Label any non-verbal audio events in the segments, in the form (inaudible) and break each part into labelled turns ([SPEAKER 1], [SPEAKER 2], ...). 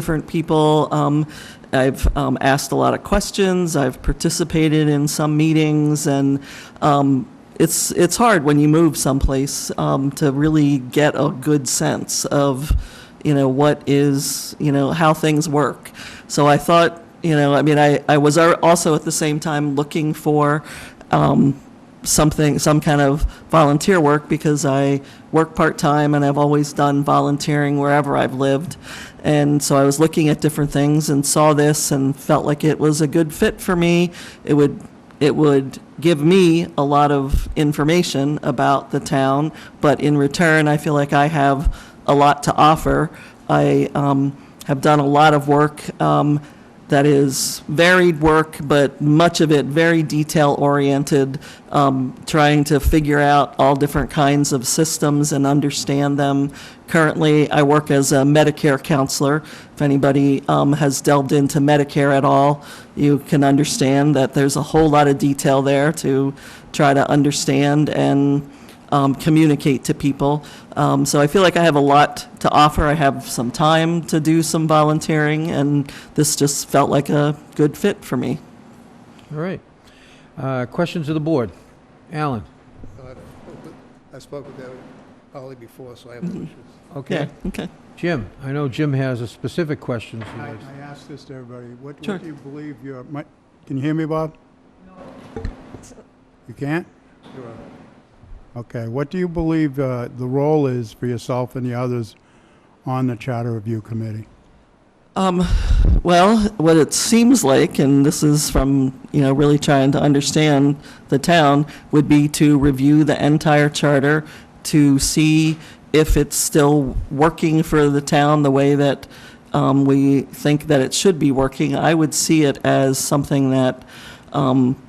[SPEAKER 1] different people. Um, I've um, asked a lot of questions, I've participated in some meetings, and um, it's, it's hard when you move someplace um, to really get a good sense of, you know, what is, you know, how things work. So I thought, you know, I mean, I, I was al- also at the same time looking for um, something, some kind of volunteer work because I work part-time and I've always done volunteering wherever I've lived. And so I was looking at different things and saw this and felt like it was a good fit for me. It would, it would give me a lot of information about the town, but in return, I feel like I have a lot to offer. I um, have done a lot of work um, that is varied work, but much of it very detail-oriented, um, trying to figure out all different kinds of systems and understand them. Currently, I work as a Medicare counselor. If anybody um, has delved into Medicare at all, you can understand that there's a whole lot of detail there to try to understand and um, communicate to people. Um, So I feel like I have a lot to offer. I have some time to do some volunteering, and this just felt like a good fit for me.
[SPEAKER 2] All right. Uh, Questions of the board? Alan?
[SPEAKER 3] I spoke with Holly before, so I have no issues.
[SPEAKER 1] Yeah,
[SPEAKER 2] Okay.
[SPEAKER 1] okay.
[SPEAKER 2] Jim? I know Jim has a specific question.
[SPEAKER 3] I I asked this to everybody, what
[SPEAKER 1] Sure.
[SPEAKER 3] what do you believe your, mi- can you hear me, Bob? You can't? Okay, what do you believe uh, the role is for yourself and the others on the Charter Review Committee?
[SPEAKER 1] Um, Well, what it seems like, and this is from, you know, really trying to understand the town, would be to review the entire charter to see if it's still working for the town the way that um, we think that it should be working. I would see it as something that um,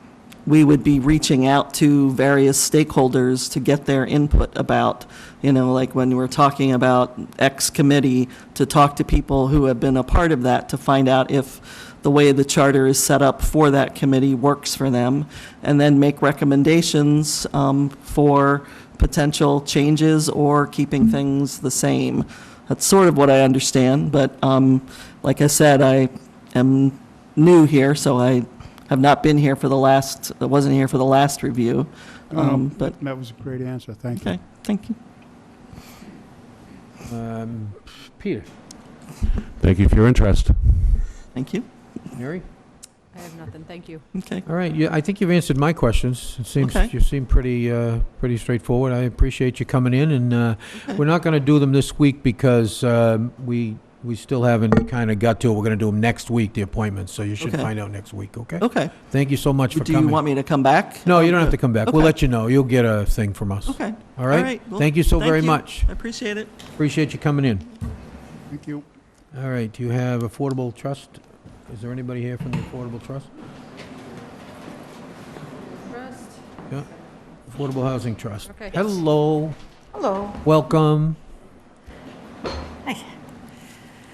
[SPEAKER 1] we would be reaching out to various stakeholders to get their input about, you know, like when we're talking about X committee, to talk to people who have been a part of that, to find out if the way the charter is set up for that committee works for them, and then make recommendations um, for potential changes or keeping things the same. That's sort of what I understand, but um, like I said, I am new here, so I have not been here for the last, I wasn't here for the last review.
[SPEAKER 2] Oh,
[SPEAKER 1] Um, But,
[SPEAKER 3] That was a great answer, thank you.
[SPEAKER 1] okay, thank you.
[SPEAKER 2] Um, Peter?
[SPEAKER 4] Thank you for your interest.
[SPEAKER 1] Thank you.
[SPEAKER 2] Mary?
[SPEAKER 5] I have nothing, thank you.
[SPEAKER 1] Okay.
[SPEAKER 2] All right, you- I think you've answered my questions. It seems,
[SPEAKER 1] Okay.
[SPEAKER 2] you seem pretty, uh, pretty straightforward. I appreciate you coming in,
[SPEAKER 1] (laughs)
[SPEAKER 2] and uh,
[SPEAKER 1] Okay.
[SPEAKER 2] we're not going to do them this week because um, we, we still haven't kind of got to it. We're going to do them next week, the appointments, so you should
[SPEAKER 1] Okay.
[SPEAKER 2] find out next week, okay?
[SPEAKER 1] Okay.
[SPEAKER 2] Thank you so much for
[SPEAKER 1] Do you want
[SPEAKER 2] coming.
[SPEAKER 1] me to come back?
[SPEAKER 2] No, you don't have to come back. We'll
[SPEAKER 1] Okay.
[SPEAKER 2] let you know. You'll get a thing from us,
[SPEAKER 1] Okay,
[SPEAKER 2] all
[SPEAKER 1] all
[SPEAKER 2] right?
[SPEAKER 1] right. Well,
[SPEAKER 2] Thank you so
[SPEAKER 1] thank
[SPEAKER 2] very
[SPEAKER 1] you.
[SPEAKER 2] much.
[SPEAKER 1] I appreciate it.
[SPEAKER 2] Appreciate you coming in.
[SPEAKER 3] Thank you.
[SPEAKER 2] All right, you have Affordable Trust. Is there anybody here from the Affordable Trust? Affordable Housing Trust.
[SPEAKER 5] Okay.
[SPEAKER 2] Hello,
[SPEAKER 6] Hello.
[SPEAKER 2] welcome.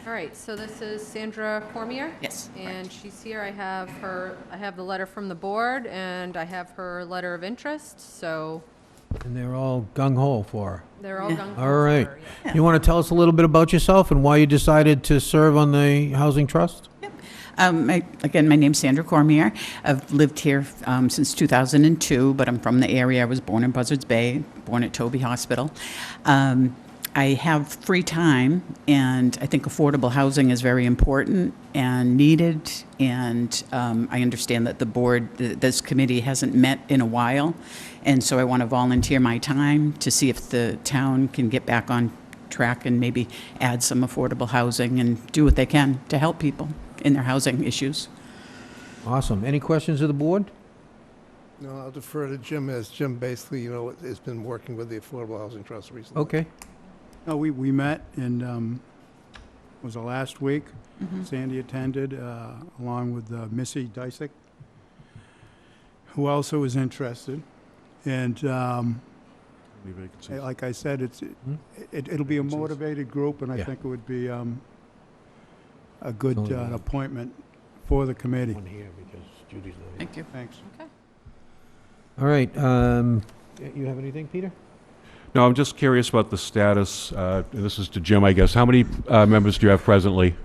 [SPEAKER 5] All right, so this is Sandra Cormier.
[SPEAKER 6] Yes,
[SPEAKER 5] And she's here, I have her, I have the letter from the board, and I have her letter of interest, so
[SPEAKER 2] And they're all gung-ho for
[SPEAKER 5] they're all
[SPEAKER 6] Yeah.
[SPEAKER 5] done.
[SPEAKER 2] All right. her. You want to tell us a little bit about yourself and why you decided to serve on the Housing Trust?
[SPEAKER 6] Um, my, again, my name's Sandra Cormier. I've lived here um, since 2002, but I'm from the area. I was born in Buzzards Bay, born at Toby Hospital. Um, I have free time, and I think affordable housing is very important and needed. And um, I understand that the board, th- this committee, hasn't met in a while, and so I want to volunteer my time to see if the town can get back on track and maybe add some affordable housing and do what they can to help people in their housing issues.
[SPEAKER 2] Awesome. Any questions of the board?
[SPEAKER 7] No, I'll defer to Jim, as Jim basically, you know, has been working with the Affordable Housing Trust recently.
[SPEAKER 2] Okay.
[SPEAKER 3] No, we, we met and, um, was it last week? Sandy attended, uh, along with uh, Missy Dysick, who also was interested. And um, eh, like I said, it's,
[SPEAKER 2] Hmm?
[SPEAKER 3] it- it'll be a
[SPEAKER 7] Vacancies.
[SPEAKER 3] motivated group, and I
[SPEAKER 2] Yeah.
[SPEAKER 3] think it would be um, a good
[SPEAKER 2] Only
[SPEAKER 3] uh,
[SPEAKER 2] one.
[SPEAKER 3] appointment for the committee.
[SPEAKER 2] One here because Judy's not
[SPEAKER 6] Thank you.
[SPEAKER 3] Thanks.
[SPEAKER 2] All right, um, you have anything, Peter?
[SPEAKER 4] No, I'm just curious about the status, uh, and this is to Jim, I guess. How many uh, members do you have presently?